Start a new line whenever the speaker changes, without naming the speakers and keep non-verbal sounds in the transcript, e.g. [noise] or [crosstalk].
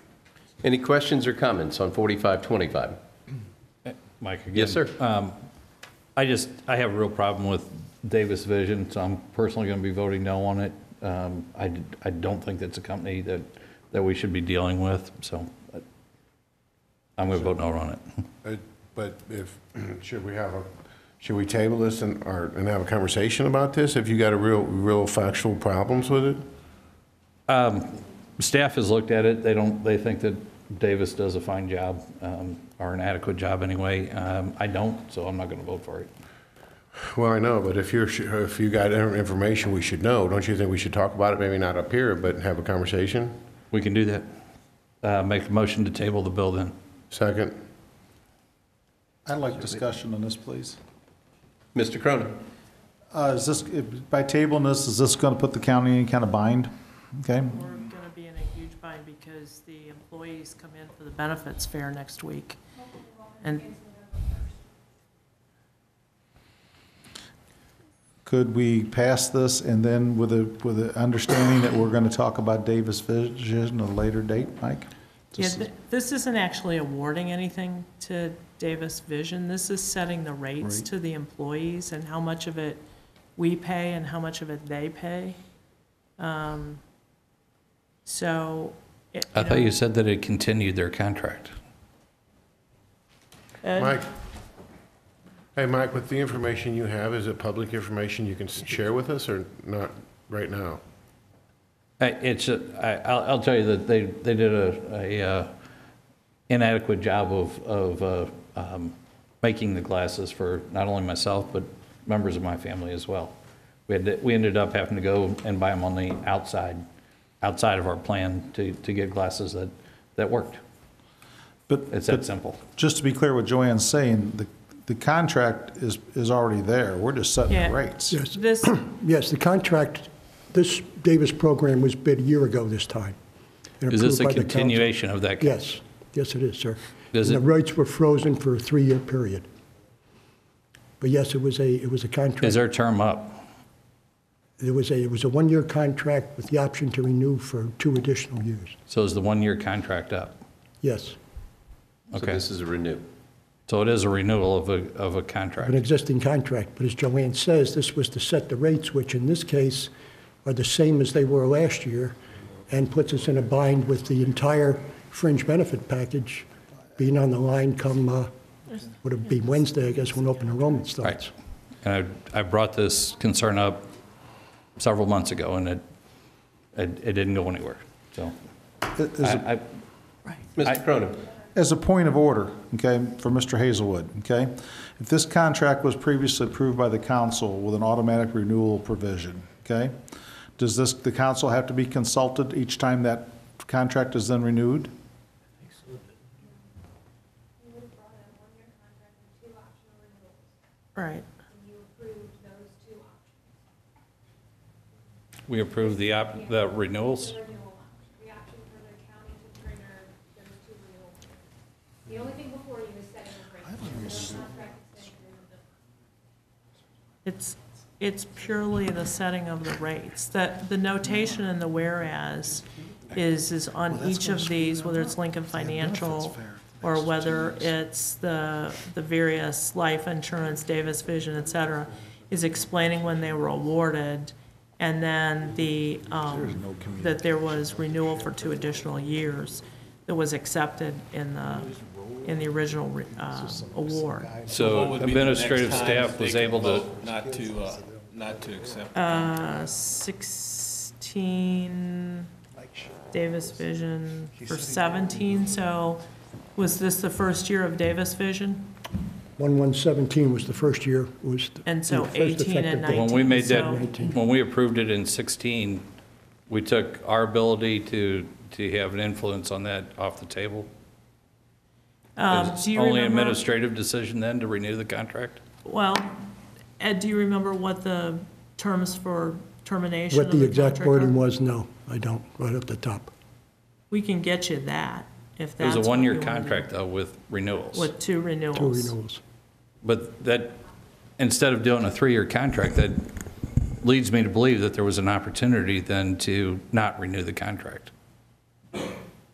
Any questions or comments on 4525?
Mike again.
Yes, sir.
I just, I have a real problem with Davis Vision, so I'm personally going to be voting no on it. Um, I, d- I don't think that's a company that, that we should be dealing with, so uh, I'm going to vote no on it. [laughs]
Uh, But if, [clears throat] should we have a, should we table this and, or, and have a conversation about this if you got a real, real factual problems with it?
Staff has looked at it, they don't, they think that Davis does a fine job, um, or an adequate job anyway. Um, I don't, so I'm not going to vote for it.
Well, I know, but if you're, su- if you got in- information we should know, don't you think we should talk about it? Maybe not up here, but have a conversation?
We can do that. Uh, Make a motion to table the bill then.
Second?
I'd like discussion on this, please.
Mr. Cronin?
Uh, Is this, if- by tabling this, is this going to put the county in any kind of bind? Okay?
We're going to be in a huge bind because the employees come in for the benefits fair next week. And
Could we pass this and then with a, with the understanding that we're going to talk about Davis Vision at a later date, Mike?
yeah,
Just-
th- this isn't actually awarding anything to Davis Vision. This is setting the rates
Right.
to the employees and how much of it we pay and how much of it they pay. Um, So. it-
I thought
know,
you said that it continued their contract.
uh,
Mike? Hey, Mike, with the information you have, is it public information you can s- share with us or not right now?
I- It's, a- I- I'll, I'll tell you that they, they did a, a uh, inadequate job of, of uh, um, making the glasses for not only myself, but members of my family as well. We had, to- we ended up having to go and buy them on the outside, outside of our plan to, to get glasses that, that worked.
But,
It's
but
that simple.
just to be clear what Joanne's saying, the, the contract is, is already there. We're just setting
Yeah.
the rates.
Yes,
This,
yes, the contract, this Davis program was bid a year ago this time. and
Is this
approved
a
by the council.
continuation of that?
Yes, yes, it is, sir.
Does
And
it-
the rates were frozen for a three-year period. But yes, it was a, it was a
Is
contract.
their term up?
It was a, it was a one-year contract with the option to renew for two additional years.
So is the one-year contract up?
Yes,
So
Okay.
this is a renew.
So it is a renewal of a, of a
an
contract.
existing contract. But as Joanne says, this was to set the rates, which in this case are the same as they were last year, and puts us in a bind with the entire fringe benefit package being on the line come, uh, would it be Wednesday, I guess, when open enrollment starts.
Right. And I, I brought this concern up several months ago, and it, it it didn't go anywhere, so.
Is it-
I, I-
Mr. Cronin?
As a point of order, okay, for Mr. Hazelwood, okay? If this contract was previously approved by the council with an automatic renewal provision, okay? Does this, the council have to be consulted each time that contract is then renewed?
right.
we approved the, op- the renewals.
The option for the county to trigger those two renewals. The only thing before you is setting the rate. The contract is setting the rate.
It's, it's purely the setting of the rates. The, the notation in the whereas is, is on each of these, whether it's Lincoln Financial or whether it's the, the various life insurance, Davis Vision, et cetera, is explaining when they were awarded and then the, um, that there was renewal for two additional years that was accepted in the, in the original, re- uh, award.
So administrative staff was able to,
Not to, uh, not to accept.
Uh, 16, Davis Vision for 17, so was this the first year of Davis Vision?
1117 was the first year, was. the-
And so
the first
18
effective
and
date.
when we made that,
19,
when we approved it in 16, we took our ability to, to have an influence on that off the table?
Um,
Is
Do you
Only
remember,
administrative decision then to renew the contract?
well, Ed, do you remember what the terms for termination
What
of the
the
contract
exact wording
are?
was, no, I don't, right up the top.
We can get you that, if
It
that's
was a
what you
one-year
wanna do.
contract though with renewals.
With two
Two
renewals.
renewals.
But that, instead of doing a three-year contract, that leads me to believe that there was an opportunity then to not renew the contract.